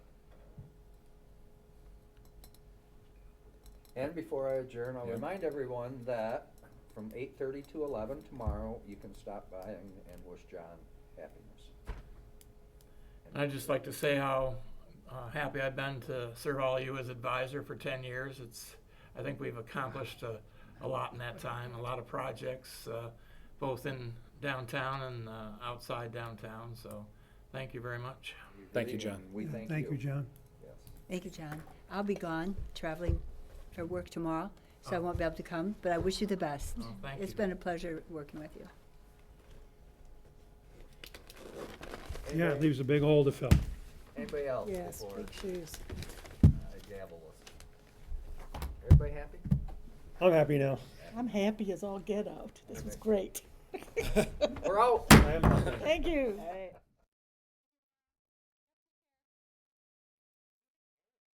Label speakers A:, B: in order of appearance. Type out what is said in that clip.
A: And before I adjourn, I'll
B: Yeah.
A: remind everyone that from eight thirty to eleven tomorrow, you can stop by and, and wish John happiness.
C: And I'd just like to say how uh, happy I've been to serve all you as advisor for 10 years. It's, I think we've accomplished a, a lot in that time, a lot of projects, uh, both in downtown and uh, outside downtown. So thank you very much.
B: Thank you,
A: agree,
B: John.
A: and We
D: Yeah,
A: thank you.
D: Thank you, John.
A: Yes.
E: Thank you, John. I'll be gone, traveling for work tomorrow, so I won't be able to come, but I wish you the best.
C: Oh, thank
E: It's
C: you.
E: been a pleasure working with you.
D: Yeah, it
A: Anybody-
D: leaves a big hole to fill.
A: Anybody else
F: Yes,
A: before
F: big shoes.
A: I gavel us? Everybody happy?
D: I'm happy now.
F: I'm happy as all get out. This was great.
A: We're out.
D: I am happy.
F: Thank you.